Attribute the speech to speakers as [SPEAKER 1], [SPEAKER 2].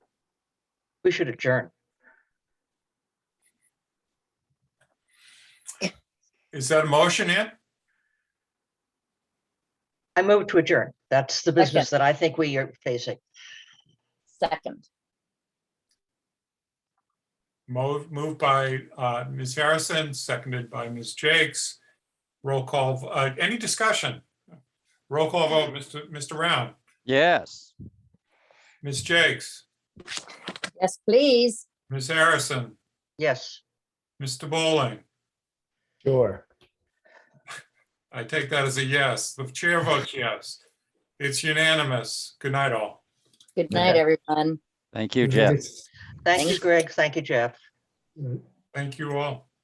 [SPEAKER 1] We should adjourn.
[SPEAKER 2] Is that a motion, Ann?
[SPEAKER 1] I move to adjourn. That's the business that I think we are facing.
[SPEAKER 3] Second,
[SPEAKER 2] Move, moved by uh, Ms. Harrison, seconded by Ms. Jakes. Roll call, uh, any discussion? Roll call vote, Mr. Mr. Round,
[SPEAKER 4] Yes.
[SPEAKER 2] Ms. Jakes,
[SPEAKER 3] yes, please.
[SPEAKER 2] Ms. Harrison,
[SPEAKER 1] Yes.
[SPEAKER 2] Mr. Bowling.
[SPEAKER 5] Sure.
[SPEAKER 2] I take that as a yes. The chair votes yes. It's unanimous. Good night, all.
[SPEAKER 3] Good night, everyone.
[SPEAKER 4] Thank you, Jeff.
[SPEAKER 1] Thank you,
[SPEAKER 3] Thanks.
[SPEAKER 1] Greg. Thank you, Jeff.
[SPEAKER 2] Thank you all.